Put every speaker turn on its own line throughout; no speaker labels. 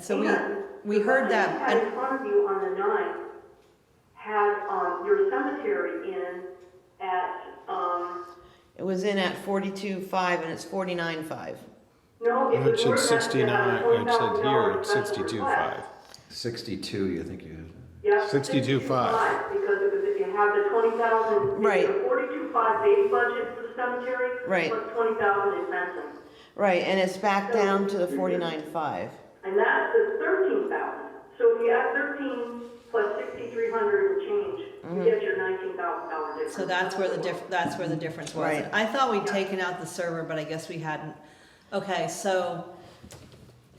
so we,
And
we heard
The
them,
question you had
and,
in front of you on the ninth had, um, your cemetery in at, um,
It was in at forty-two five and it's forty-nine five.
no, it
It
was.
should
worth less than a
sixty-nine, it said here,
$20,000
it's
special
sixty-two
request.
five.
62, you think you,
Yeah.
62.5.
Because it was, if you have the twenty thousand.
Right.
Forty-two five base budget for the cemetery.
Right.
Plus twenty thousand in fencing.
Right, and it's back down to the forty-nine five.
And that's the thirteen thousand. So if you add thirteen plus sixty-three hundred and change, you get your nineteen thousand dollar difference.
Mm-hmm. so that's where the diff, that's where the difference was.
Right.
I thought we'd taken out the server, but I guess we hadn't. Okay, so,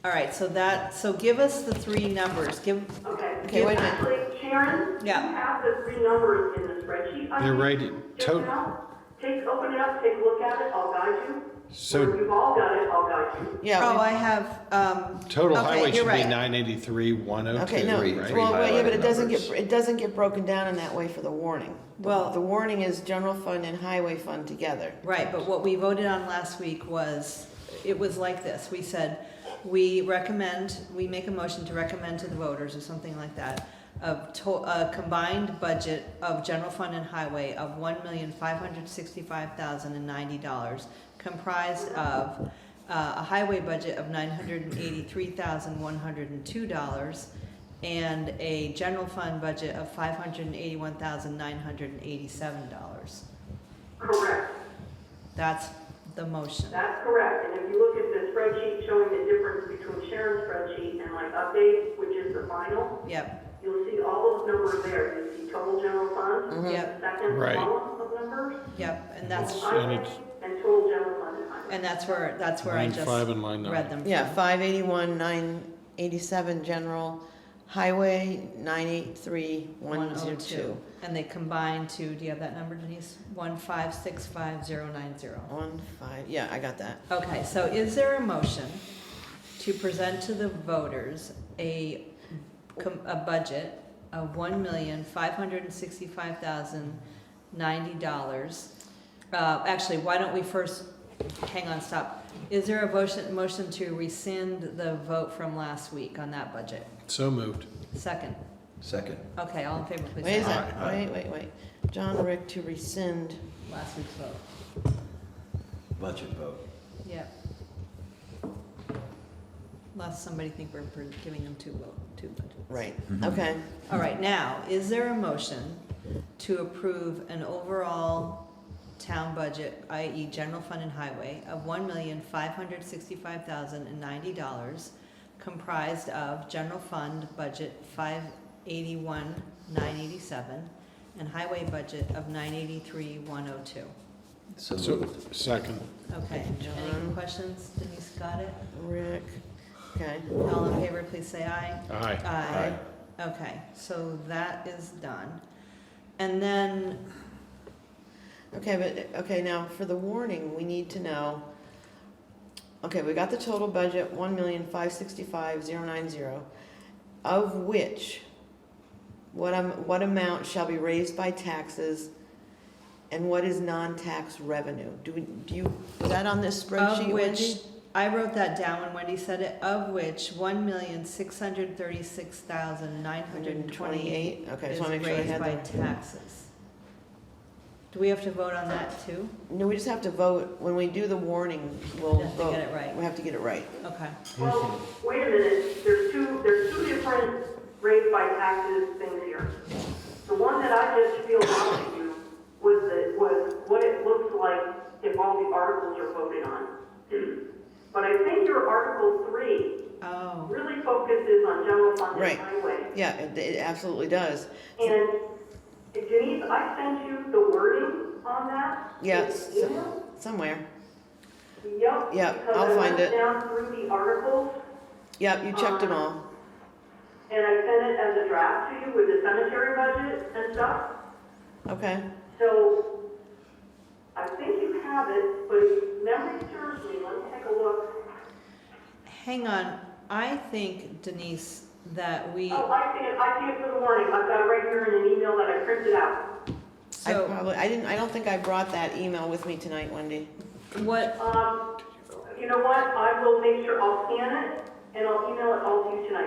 all right, so that, so give us the three numbers, give,
Okay.
Okay, wait a minute.
Actually, Sharon.
Yeah.
You have the three numbers in the spreadsheet. I
They're
think,
right,
just
tot-
now. Take, open it up, take a look at it, I'll guide you. Or
So
You've all got it, I'll guide you.
oh,
Yeah,
I have, um.
total
okay,
highway
you're
should be
right.
nine eighty-three, one
we-
oh
okay,
two,
no,
three-
right?
three
well, wait, yeah, but it
highlighted
doesn't get,
numbers.
it doesn't get broken down in that way for the warning. The-
Well-
The warning is general fund and highway fund together.
Right, but what we voted on last week was, it was like this, we said, we recommend, we make a motion to recommend to the voters or something like that, of to, a combined budget of general fund and highway of one million five hundred sixty-five thousand and ninety dollars, comprised of, uh, a highway budget of nine hundred and eighty-three thousand one hundred and two dollars, and a general fund budget of five hundred and eighty-one thousand nine hundred and eighty-seven dollars.
Correct,
That's the motion.
that's correct. And if you look at the spreadsheet showing the difference between Sharon's spreadsheet and my update, which is the final,
Yep,
you'll see all those numbers there. You see total general
Mm-hmm.
fund,
yep,
second
Right.
column of numbers,
yep, and that's,
Yes. And
highway,
it's-
and total general fund and highway.
and that's where, that's where I
Line
just
five and line
read
nine.
them.
Yeah,
from.
five eighty-one, nine eighty-seven, general, highway, nine eight three, one zero two.
oh, And they combine to, do you have that number Denise? One five six five zero nine zero.
One, five, yeah, I got that.
Okay, so is there a motion to present to the voters a, com- a budget of one million, five hundred and sixty-five thousand, ninety dollars? Uh, actually, why don't we first, hang on, stop. Is there a motion, motion to rescind the vote from last week on that budget?
So moved.
Second.
second?
Okay, all in favor, please
Wait a
say aye.
sec,
Aye, aye.
wait, wait, wait. John Rick to rescind,
Last week's vote.
Budget vote.
Yep. Lest somebody think we're we're giving them two vote, two budgets.
right,
Mhm.
okay.
All right, now, is there a motion to approve an overall town budget, i.e. general fund and highway, of one million five hundred sixty-five thousand and ninety dollars, comprised of general fund budget five eighty-one nine eighty-seven and highway budget of nine eighty-three one oh two?
So
So,
moved.
second.
Okay, any
John.
questions? Denise got it?
Rick, okay.
All in favor, please say aye.
Aye.
Aye. Okay, so that is done. And then
Okay, but, okay, now for the warning, we need to know, okay, we got the total budget, one million, five sixty-five, zero nine zero, of which, what am, what amount shall be raised by taxes and what is non-tax revenue? Do we, do you, is that on this
Of
spreadsheet,
which,
Wendy?
I wrote that down when Wendy said it, of which one million six hundred thirty-six thousand nine hundred and twenty-eight
Okay,
is
just wanna make sure I
raised
had
by
that.
taxes. Do we have to vote on that too?
No, we just have to vote, when we do the warning, we'll
We have to get
vote,
it right,
we have to get it right.
okay.
Well, wait a minute, there's two, there's two different raised by taxes things here. The one that I just feel out to you was the, was what it looks like if all the articles are voted on. But I think your Article Three
Oh,
really focuses on general fund
Right.
and highway.
Yeah, it it absolutely does.
And Denise, I sent you the wording on that.
Yes,
in email.
somewhere.
Yep.
Yeah, I'll find it.
Because I went down through the articles
Yep, you checked them all.
and I sent it as a draft to you with the cemetery budget and stuff.
Okay,
So, I think you have it, but if memory serves me, let me take a look.
hang on, I think Denise, that we,
Oh, I see it, I see it for the warning, I've got it right here in an email that I printed out.
I
so
probably, I didn't, I don't think I brought that email with me tonight, Wendy.
what,
Um, you know what, I will make sure, I'll scan it, and I'll email it all to you tonight.